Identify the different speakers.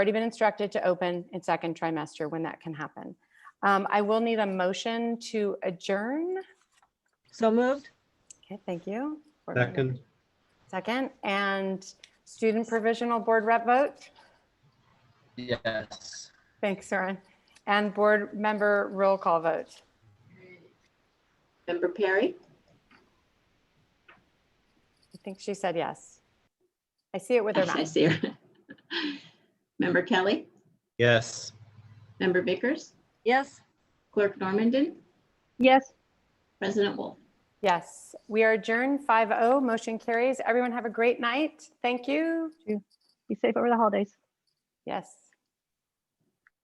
Speaker 1: already been instructed to open in second trimester when that can happen. Um, I will need a motion to adjourn.
Speaker 2: So moved?
Speaker 1: Okay, thank you. Board member.
Speaker 3: Second,
Speaker 1: Second, and student provisional board rep vote.
Speaker 4: Yes.
Speaker 1: Thanks, Soren. And board member roll call vote.
Speaker 5: Member Perry?
Speaker 1: I think she said yes. I see it with her
Speaker 5: I
Speaker 1: mouth.
Speaker 5: see her. Member Kelly?
Speaker 3: yes.
Speaker 5: Member Vickers?
Speaker 2: Yes?
Speaker 5: Clerk Normandin?
Speaker 6: Yes.
Speaker 5: President Wolf?
Speaker 1: Yes, we are adjourned 5-0. Motion carries. Everyone have a great night. Thank you.
Speaker 6: Be safe over the holidays.
Speaker 1: Yes.